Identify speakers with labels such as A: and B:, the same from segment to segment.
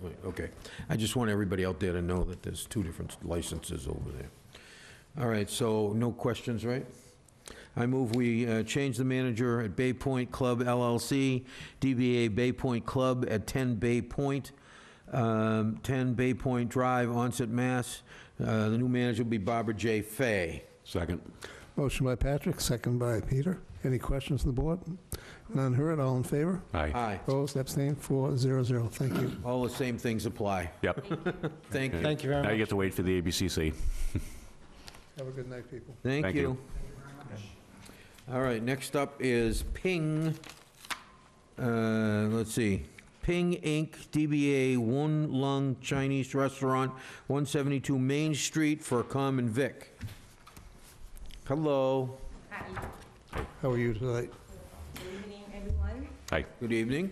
A: Right, Okay. I just want everybody out there to know that there's two different licenses over there. All right, so no questions, right? I move we uh, change the manager at Bay Point Club LLC, DBA Bay Point Club at 10 Bay Point, um, 10 Bay Point Drive, Onset, Mass. Uh, The new manager will be Barbara J. Fay.
B: Second.
C: Motion by Patrick, second by Peter. Any questions from the board? None heard, all in favor?
B: Aye.
A: Aye.
C: Opposed, abstained, four zero zero. Thank you.
A: All the same things apply.
B: Yep.
A: Thank you.
D: Thank you very
B: Now
D: much.
B: you get to wait for the ABCC.
C: Have a good night, people.
A: Thank
B: Thank you.
A: you. All right, next up is Ping, uh, let's see, Ping Inc., DBA One Lung Chinese Restaurant, 172 Main Street for a common vic. Hello,
C: How are you tonight?
E: Good evening, everyone.
B: Aye.
A: good evening.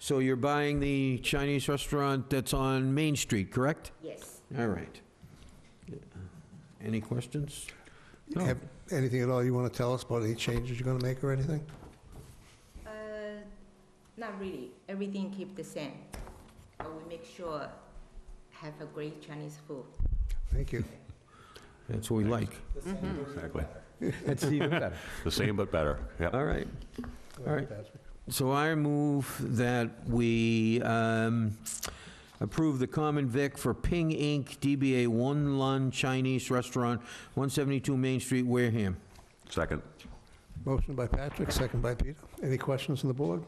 A: So you're buying the Chinese restaurant that's on Main Street, correct?
E: Yes,
A: All right. Any questions? No.
C: Have anything at all you want to tell us about any changes you're going to make or anything?
E: uh, not really. Everything keep the same. But we make sure have a great Chinese food.
C: Thank you.
A: That's what we like.
B: Exactly.
D: That's even better.
B: The same but better. Yep.
A: All right. All right.
C: Patrick.
A: So I move that we um, approve the common vic for Ping Inc., DBA One Lun Chinese Restaurant, 172 Main Street, Wareham.
B: Second.
C: Motion by Patrick, second by Peter. Any questions from the board?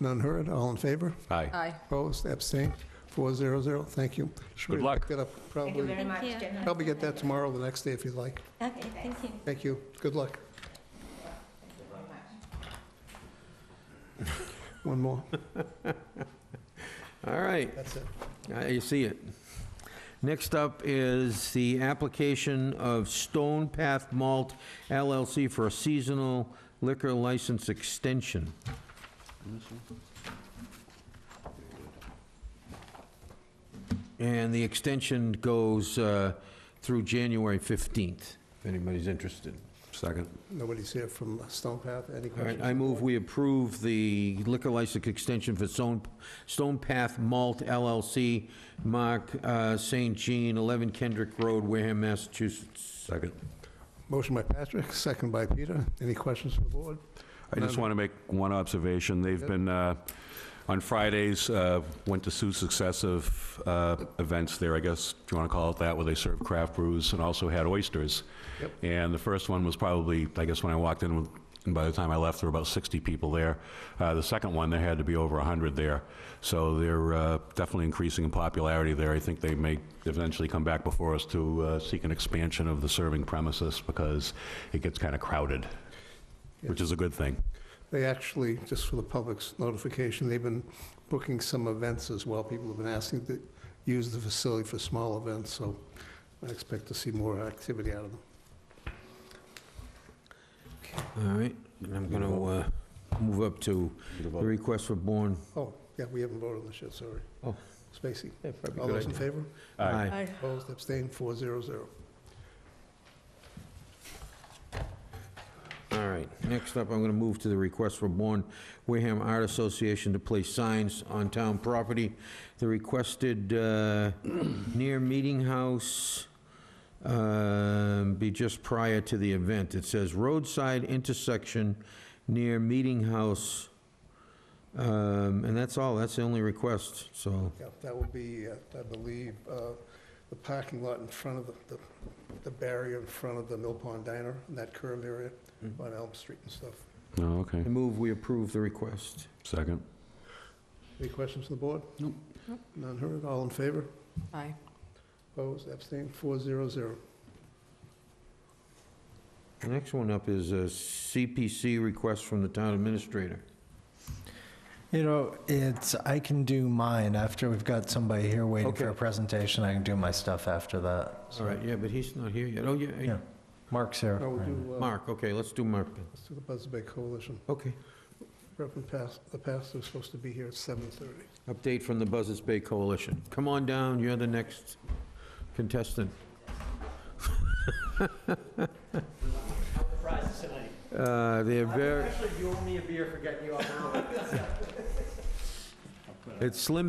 C: None heard, all in favor?
E: uh,
B: Aye.
C: Opposed, abstained, four zero zero. Thank you. Should we
B: Good luck.
C: pick that up?
E: Thank you
C: Probably,
E: very much,
F: you.
E: gentlemen.
C: probably get that tomorrow, or the next day if you'd like.
F: Okay, thank you.
C: Thank you. Good luck. One more.
A: All right.
C: That's it.
A: Uh, You see it. Next up is the application of Stone Path Malt LLC for a seasonal liquor license extension. And the extension goes uh, through January 15th, if anybody's interested.
B: Second.
C: Nobody's here from Stone Path. Any
A: All right,
C: questions?
A: I move we approve the liquor license extension for Stone, Stone Path Malt LLC, Mark uh, St. Jean, 11 Kendrick Road, Wareham, Massachusetts.
B: Second.
C: Motion by Patrick, second by Peter. Any questions from the board?
B: I just want to make one observation. They've been, uh, on Fridays, uh, went to two successive uh, events there, I guess, if you want to call it that, where they served craft brews and also had oysters.
C: Yep.
B: And the first one was probably, I guess, when I walked in, and by the time I left, there were about 60 people there. Uh, The second one, there had to be over 100 there. So they're uh, definitely increasing in popularity there. I think they may eventually come back before us to uh, seek an expansion of the serving premises because it gets kind of crowded, which is a good thing.
C: They actually, just for the public's notification, they've been booking some events as well. People have been asking to use the facility for small events, so I expect to see more activity out of them.
A: All right, and I'm going to move up to the request for born.
C: Oh, yeah, we haven't voted on this yet, sorry.
A: Oh.
C: Spacey. All those in favor?
B: Aye.
C: Opposed, abstained, four zero zero.
A: All right, next up, I'm going to move to the request for Bourne Wareham Art Association to place signs on town property. The requested uh, near Meeting House um, be just prior to the event. It says roadside intersection near Meeting House, Um, and that's all, that's the only request, so,
C: Yeah, that would be, uh, I believe, uh, the parking lot in front of the- the, the barrier in front of the Mill Pond Diner, in that curve area on Elm Street and stuff.
B: Oh, okay.
A: I move we approve the request.
B: Second.
C: Any questions from the board? Nope. None heard, all in favor?
F: Aye.
C: Opposed, abstained, four zero zero.
A: The next one up is a CPC request from the town administrator.
D: You know, it's, I can do mine after we've got somebody here waiting for a
A: Okay.
D: presentation. I can do my stuff after that.
A: All right, yeah, but he's not here yet. Oh, yeah,
D: Yeah. Mark's here.
C: Now we'll
D: right
C: do, uh,
A: Mark, okay, let's do Mark then.
C: let's do the Buzzards Bay Coalition.
A: Okay.
C: Reverend Pas, the pastor's supposed to be here at 7:30.
A: Update from the Buzzards Bay Coalition. Come on down, you're the next contestant.
G: prizes tonight.
A: Uh, They're very,
G: Actually, you owe me a beer for getting you up early.
A: it's Slim